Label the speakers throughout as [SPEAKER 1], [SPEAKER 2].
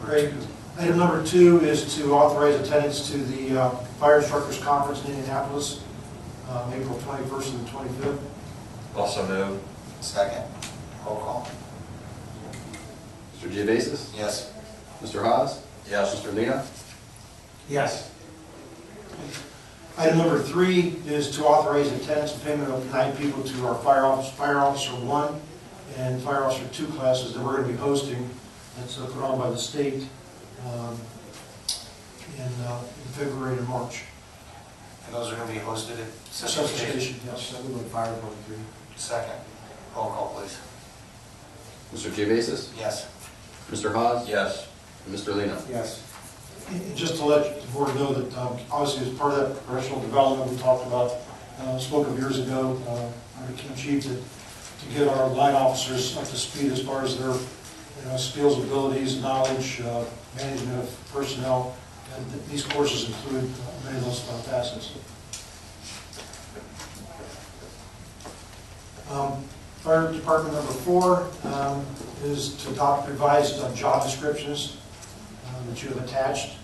[SPEAKER 1] great. Item number two is to authorize attendance to the uh, Fire Instructors Conference in Indianapolis, um, April 21st and 25th.
[SPEAKER 2] Also move.
[SPEAKER 3] Second. Roll call.
[SPEAKER 4] Mr. Geovasis?
[SPEAKER 3] Yes.
[SPEAKER 4] Mr. Haas?
[SPEAKER 2] Yes.
[SPEAKER 4] Mr. Lina?
[SPEAKER 1] Yes. Item number three is to authorize attendance and payment of nine people to our fire officer, fire officer one and fire officer two classes that we're going to be hosting. That's uh, put on by the state um, in uh, in February and March.
[SPEAKER 3] And those are going to be hosted at
[SPEAKER 1] Central
[SPEAKER 3] Central Station.
[SPEAKER 1] Station, yes, that would be fire department three.
[SPEAKER 3] Second. Roll call, please.
[SPEAKER 4] Mr. Geovasis?
[SPEAKER 3] Yes.
[SPEAKER 4] Mr. Haas?
[SPEAKER 2] Yes.
[SPEAKER 4] And Mr. Lina?
[SPEAKER 1] Yes. Just to let the board know that um, obviously as part of that professional development we talked about, uh, spoke of years ago, uh, under Kim Chief, that to get our line officers up to speed as far as their, you know, skills, abilities, knowledge, uh, management of personnel, and th- these courses include uh, many of those uh, facets. Um, Fire Department number four um, is to adopt revised uh, job descriptions uh, that you have attached.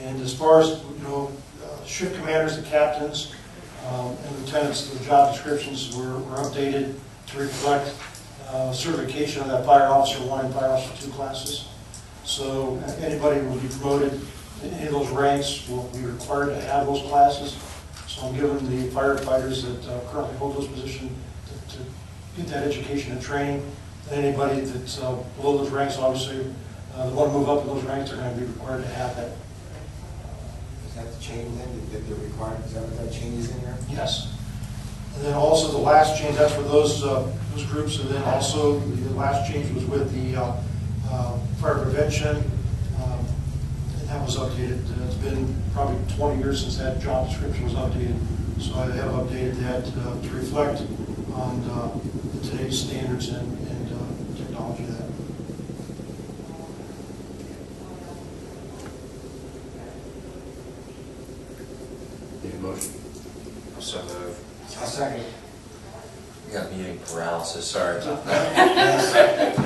[SPEAKER 1] And as far as, you know, uh, ship commanders and captains um, and lieutenants, the job descriptions were were updated to reflect uh, certification of that fire officer one and fire officer two classes. So uh, anybody who will be promoted in any of those ranks will be required to have those classes. So I'm giving the firefighters that uh, currently hold those positions to to get that education and training. And anybody that's uh, below those ranks, obviously, uh, that want to move up in those ranks are going to be required to have that.
[SPEAKER 5] Is that the change then, that they're required, is that what that change is in here?
[SPEAKER 1] Yes. And then also the last change, that's for those, uh, those groups, and then also the last change was with the uh, uh, fire prevention, um, and that was updated. Uh, It's been probably 20 years since that job description was updated, so I have updated that uh, to reflect on uh, today's standards and and, uh, technology that.
[SPEAKER 4] Need a motion?
[SPEAKER 2] Also move.
[SPEAKER 5] I'll second.
[SPEAKER 2] You got meeting paralysis, sorry about that.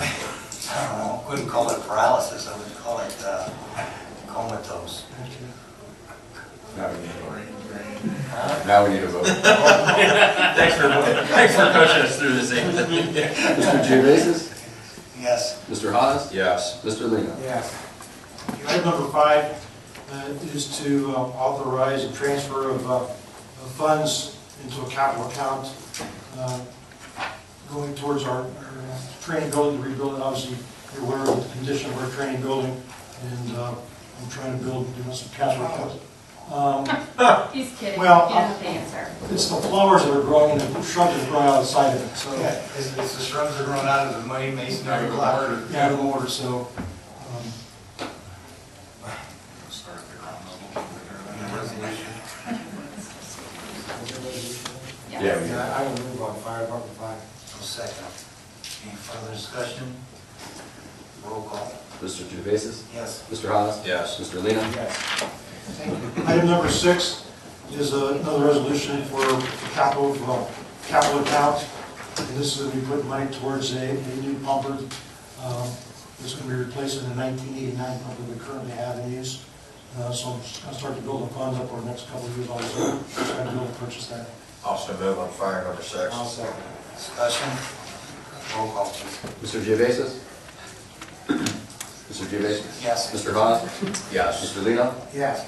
[SPEAKER 3] I don't know, wouldn't call it paralysis, I would call it uh, comatose.
[SPEAKER 4] Now we need a vote. Now we need a vote.
[SPEAKER 2] Thanks for, thanks for coaching us through this, Anthony.
[SPEAKER 4] Mr. Geovasis?
[SPEAKER 3] Yes.
[SPEAKER 4] Mr. Haas?
[SPEAKER 2] Yes.
[SPEAKER 4] Mr. Lina?
[SPEAKER 5] Yes.
[SPEAKER 1] Item number five uh, is to uh, authorize a transfer of uh, of funds into a capital account uh, going towards our our, uh, training building, to rebuild it. Obviously, you're aware of the condition of our training building, and uh, I'm trying to build, you know, some capital accounts. Um,
[SPEAKER 6] He's kidding, he
[SPEAKER 1] Well,
[SPEAKER 6] doesn't have the answer.
[SPEAKER 1] It's the flowers that are growing and the shrubs that are growing outside of it, so.
[SPEAKER 3] Yeah, it's it's the shrubs that are growing out of the money mason out of the clock.
[SPEAKER 1] Yeah, out of order, so. um,
[SPEAKER 3] Start at the ground level, and the resolution.
[SPEAKER 6] Yes.
[SPEAKER 4] Yeah,
[SPEAKER 5] Yeah, I I will move on fire department five.
[SPEAKER 3] I'll second. Any further discussion? Roll call.
[SPEAKER 4] Mr. Geovasis?
[SPEAKER 3] Yes.
[SPEAKER 4] Mr. Haas?
[SPEAKER 2] Yes.
[SPEAKER 4] Mr. Lina?
[SPEAKER 5] Yes.
[SPEAKER 1] Item number six is uh, another resolution for capital, well, capital account. And this is going to be putting money towards a, a new pumper. um, That's going to be replacing the 1989 pumper we currently have in use. Uh, So I'm just going to start to build the funds up over the next couple of years, obviously, trying to be able to purchase that.
[SPEAKER 2] Also move on fire number six.
[SPEAKER 5] I'll second.
[SPEAKER 3] Discussion? Roll call, please.
[SPEAKER 4] Mr. Geovasis? Mr. Geovasis?
[SPEAKER 3] Yes.
[SPEAKER 4] Mr. Haas?
[SPEAKER 2] Yes.
[SPEAKER 4] Mr. Lina?
[SPEAKER 5] Yes.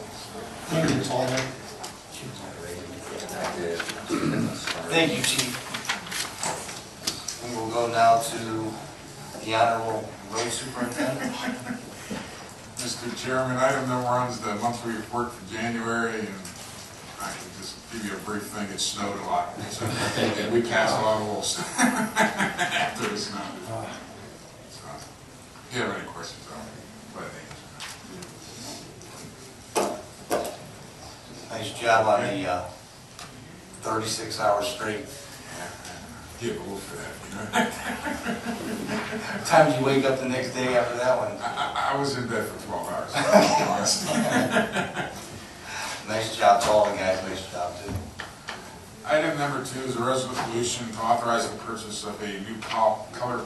[SPEAKER 1] Thank you, that's all I have.
[SPEAKER 3] Thank you, Chief. We will go now to the Honorable Road Superintendent.
[SPEAKER 7] Mr. Chairman, item number one is the monthly report for January, and I can just give you a brief thing, it snowed a lot. So, and We passed a lot of rules after the snow. So, If you have any questions, I'll let it
[SPEAKER 3] Nice job on the uh, 36 hours straight.
[SPEAKER 7] give a look for that, you know?
[SPEAKER 3] Times you wake up the next day after that one.
[SPEAKER 7] I, I- I was in bed for 12 hours, to be honest.
[SPEAKER 3] Nice job to all the guys, nice job, too.
[SPEAKER 7] Item number two is a resolution to authorize the purchase of a new col- color